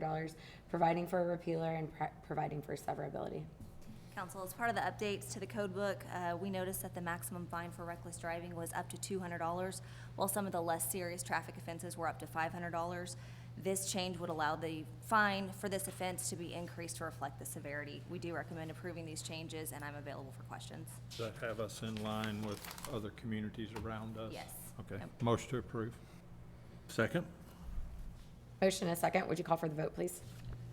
dollars, providing for a repealer and pro- providing for severability. Council, as part of the updates to the code book, uh, we noticed that the maximum fine for reckless driving was up to two hundred dollars, while some of the less serious traffic offenses were up to five hundred dollars. This change would allow the fine for this offense to be increased to reflect the severity. We do recommend approving these changes, and I'm available for questions. Does that have us in line with other communities around us? Yes. Okay, Yep. motion to approve. Second? Motion and a second. Would you call for the vote, please?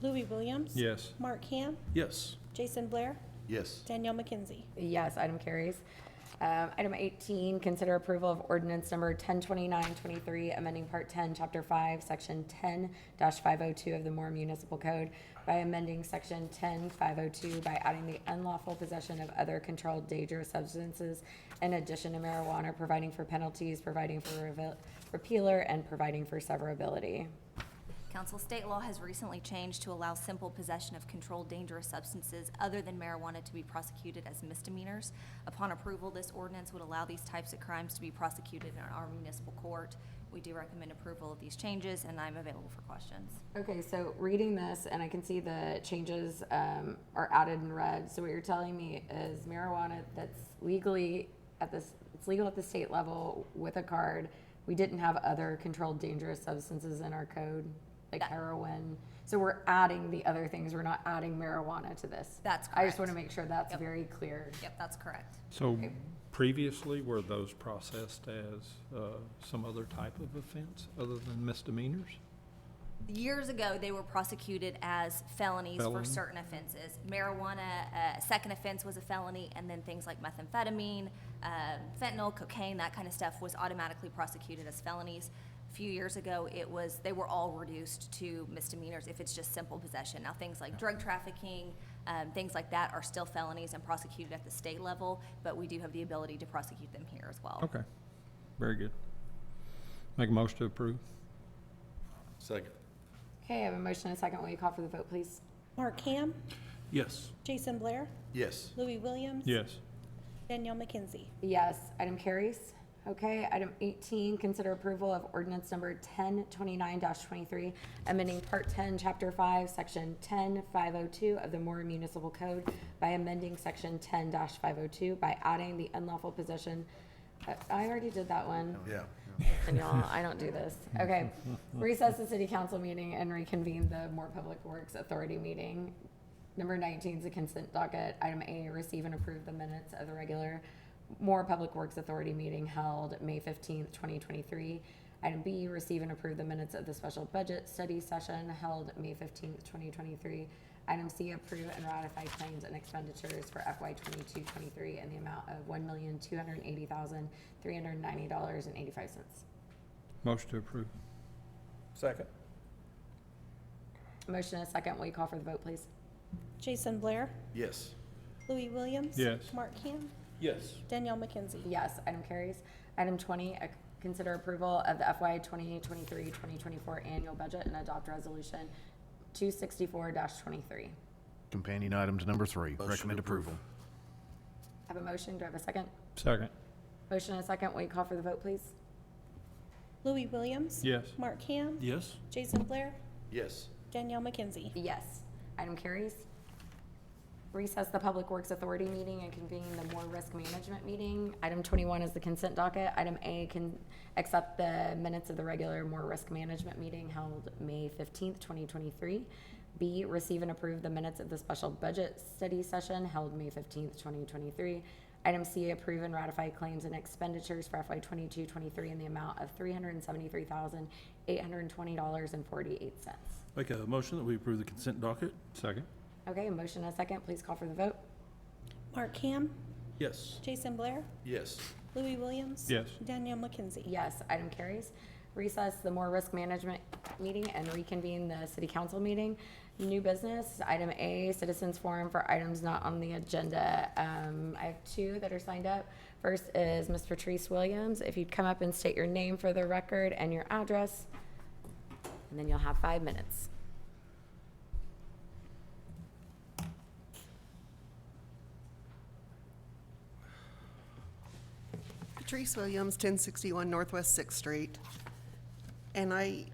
Louis Williams. Yes. Mark Ham. Yes. Jason Blair. Yes. Danielle McKenzie. Yes, item carries. Um, Item 18, consider approval of ordinance number 1029-23, amending Part 10, Chapter 5, Section 10-502 of the Moore Municipal Code by amending Section 10502 by adding the unlawful possession of other controlled dangerous substances in addition to marijuana, providing for penalties, providing for revel- repealer, and providing for severability. Council, state law has recently changed to allow simple possession of controlled dangerous substances other than marijuana to be prosecuted as misdemeanors. Upon approval, this ordinance would allow these types of crimes to be prosecuted in our municipal court. We do recommend approval of these changes, and I'm available for questions. Okay, so reading this, and I can see the changes um, are added in red. So what you're telling me is marijuana that's legally at this, it's legal at the state level with a card. We didn't have other controlled dangerous substances in our code, like That- heroin. So we're adding the other things. We're not adding marijuana to this. That's I just correct. want to make sure that's Yep. very clear. Yep, that's correct. So previously, were those processed as uh, some other type of offense other than misdemeanors? Years ago, they were prosecuted as felonies for Felony. certain offenses. Marijuana, uh, second offense was a felony, and then things like methamphetamine, uh, fentanyl, cocaine, that kind of stuff was automatically prosecuted as felonies. A few years ago, it was, they were all reduced to misdemeanors if it's just simple possession. Now, things like drug trafficking, um, things like that are still felonies and prosecuted at the state level, but we do have the ability to prosecute them here as well. Okay, very good. Make a motion to approve. Second? Okay, I have a motion and a second. Will you call for the vote, please? Mark Ham. Yes. Jason Blair. Yes. Louis Williams. Yes. Danielle McKenzie. Yes, item carries. Okay, item eighteen, consider approval of ordinance number ten twenty-nine twenty-three, amending part ten, chapter five, section ten five oh two of the Moore Municipal Code by amending section ten five oh two by adding the unlawful possession. I- I already did that one. Yeah. And y'all, I don't do this. Okay. Recess the city council meeting and reconvene the Moore Public Works Authority meeting. Number nineteen is a consent docket. Item A, receive and approve the minutes of the regular Moore Public Works Authority meeting held May fifteenth, twenty twenty-three. Item B, receive and approve the minutes of the special budget study session held May fifteenth, twenty twenty-three. Item C, approve and ratify claims and expenditures for FY 22-23 in the amount of one million, two hundred and eighty thousand, three hundred and ninety dollars and eighty-five cents. Motion to approve. Second? Motion and a second. Will you call for the vote, please? Jason Blair. Yes. Louis Williams. Yes. Mark Ham. Yes. Danielle McKenzie. Yes, item carries. Item twenty, uh, consider approval of the FY 2023-2024 annual budget and adopt resolution two sixty-four twenty-three. Companion item to number three, Motion recommend approval. Have a motion. Do I have a second? Second. Motion and a second. Will you call for the vote, please? Louis Williams. Yes. Mark Ham. Yes. Jason Blair. Yes. Danielle McKenzie. Yes. Item carries. Recess the Public Works Authority meeting and convene the Moore Risk Management meeting. Item twenty-one is the consent docket. Item A can accept the minutes of the regular Moore Risk Management meeting held May fifteenth, twenty twenty-three. B, receive and approve the minutes of the special budget study session held May fifteenth, twenty twenty-three. Item C, approve and ratify claims and expenditures for FY 22-23 in the amount of three hundred and seventy-three thousand, eight hundred and twenty dollars and forty-eight cents. Make a motion that we approve the consent docket? Second. Okay, motion and a second, please call for the vote. Mark Ham. Yes. Jason Blair. Yes. Louis Williams. Yes. Danielle McKenzie. Yes, item carries. Recess the more risk management meeting and reconvene the city council meeting. New business, item A, citizens forum for items not on the agenda. Um, I have two that are signed up. First is Ms. Patrice Williams. If you'd come up and state your name for the record and your address, and then you'll have five minutes. Patrice Williams, 1061 Northwest Sixth Street. And I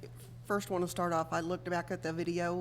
first want to start off, I looked back at the video